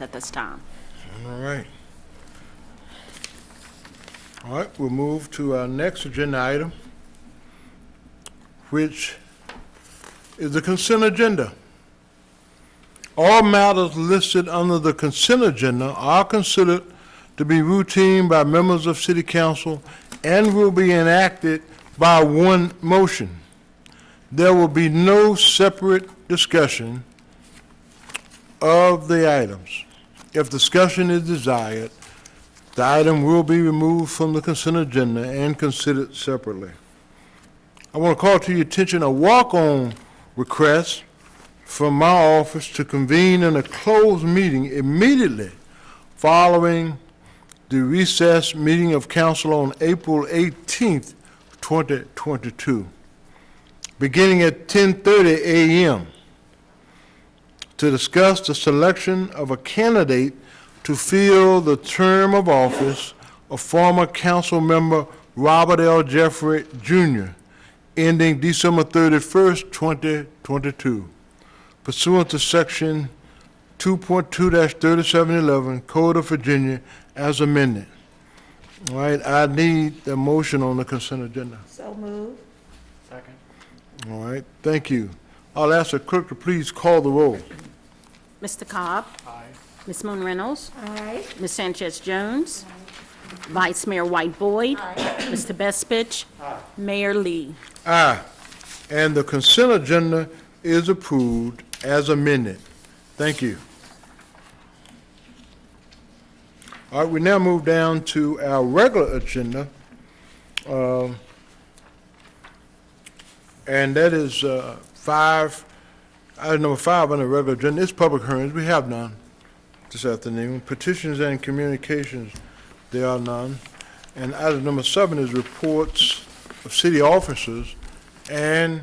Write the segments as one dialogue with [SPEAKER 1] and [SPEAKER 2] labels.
[SPEAKER 1] at this time.
[SPEAKER 2] All right. All right, we'll move to our next agenda item, which is the consent agenda. All matters listed under the consent agenda are considered to be routine by members of city council and will be enacted by one motion. There will be no separate discussion of the items. If discussion is desired, the item will be removed from the consent agenda and considered separately. I want to call to your attention a walk-on request from my office to convene in a closed meeting immediately following the recess meeting of council on April 18th, 2022, beginning at 10:30 a.m to discuss the selection of a candidate to fill the term of office of former council member Robert L. Jeffrey Jr., ending December 31st, 2022, pursuant to Section 2.2-3711 Code of Virginia as amended. All right, I need the motion on the consent agenda.
[SPEAKER 3] So move.
[SPEAKER 2] All right, thank you. I'll ask the clerk to please call the roll.
[SPEAKER 1] Mr. Cobb? Aye. Ms. Moon Reynolds?
[SPEAKER 3] Aye.
[SPEAKER 1] Ms. Sanchez Jones? Vice Mayor White Boyd? Mr. Bestfitch? Mayor Lee?
[SPEAKER 2] Aye. Ah, And the consent agenda is approved as amended. Thank you. All right, we now move down to our regular agenda. um, And that is uh, five, item number five on the regular agenda, it's public hearings, we have none this afternoon. Petitions and communications, there are none. And item number seven is reports of city officers and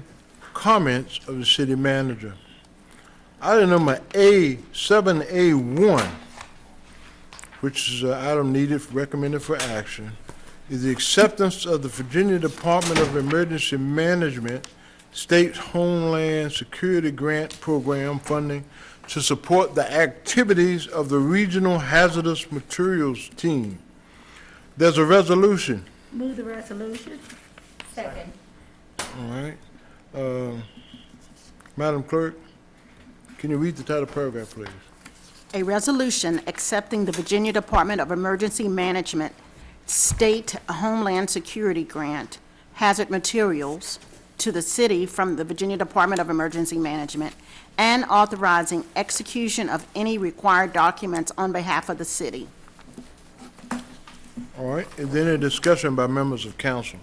[SPEAKER 2] comments of the city manager. Item number A, seven A one, which is an item needed, recommended for action, is the acceptance of the Virginia Department of Emergency Management State Homeland Security Grant Program funding to support the activities of the Regional Hazardous Materials Team. There's a resolution.
[SPEAKER 3] Move the resolution. Second.
[SPEAKER 2] All right. Um, Madam Clerk, can you read the title paragraph, please?
[SPEAKER 1] A resolution accepting the Virginia Department of Emergency Management State Homeland Security Grant Hazard Materials to the city from the Virginia Department of Emergency Management and authorizing execution of any required documents on behalf of the city.
[SPEAKER 2] All right, is there any discussion by members of council?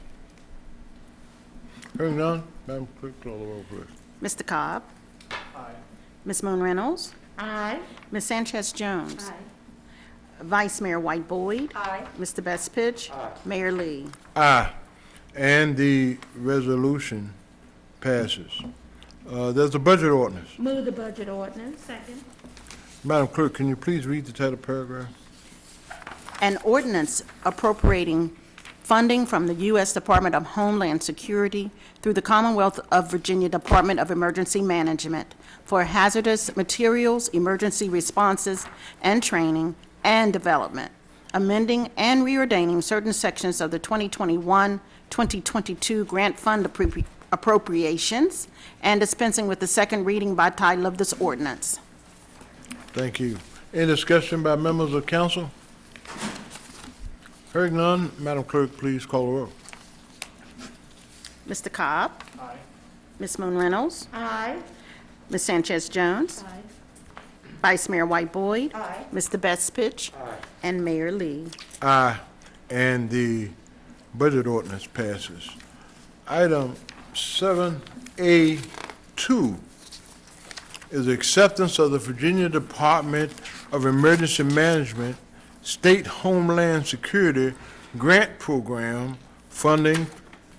[SPEAKER 2] Hearing none, Madam Clerk, call the roll, please.
[SPEAKER 1] Mr. Cobb? Aye. Ms. Moon Reynolds?
[SPEAKER 3] Aye.
[SPEAKER 1] Ms. Sanchez Jones? Vice Mayor White Boyd?
[SPEAKER 3] Aye.
[SPEAKER 1] Mr. Best Pitch? Mayor Lee?
[SPEAKER 2] Aye, and the resolution passes. Uh, There's a budget ordinance.
[SPEAKER 3] Move the budget ordinance. Second.
[SPEAKER 2] Madam Clerk, can you please read the title paragraph?
[SPEAKER 1] An ordinance appropriating funding from the U.S. Department of Homeland Security through the Commonwealth of Virginia Department of Emergency Management for hazardous materials, emergency responses, and training and development, amending and reordaining certain sections of the 2021-2022 grant fund appropri- appropriations, and dispensing with the second reading by title of this ordinance.
[SPEAKER 2] Thank you. Any discussion by members of council? Hearing none, Madam Clerk, please call the roll.
[SPEAKER 1] Mr. Cobb? Aye. Ms. Moon Reynolds?
[SPEAKER 3] Aye.
[SPEAKER 1] Ms. Sanchez Jones?
[SPEAKER 3] Aye.
[SPEAKER 1] Vice Mayor White Boyd?
[SPEAKER 3] Aye.
[SPEAKER 1] Mr. Bestfitch? And Mayor Lee.
[SPEAKER 2] Aye, and the budget ordinance passes. Item 7A2 is acceptance of the Virginia Department of Emergency Management State Homeland Security Grant Program funding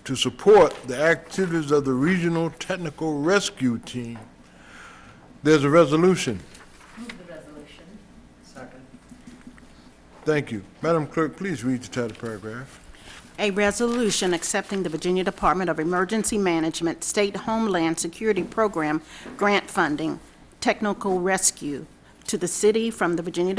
[SPEAKER 2] to support the activities of the Regional Technical Rescue Team. There's a resolution. Thank you. Madam Clerk, please read the title paragraph.
[SPEAKER 1] A resolution accepting the Virginia Department of Emergency Management State Homeland Security Program grant funding, technical rescue, to the city from the Virginia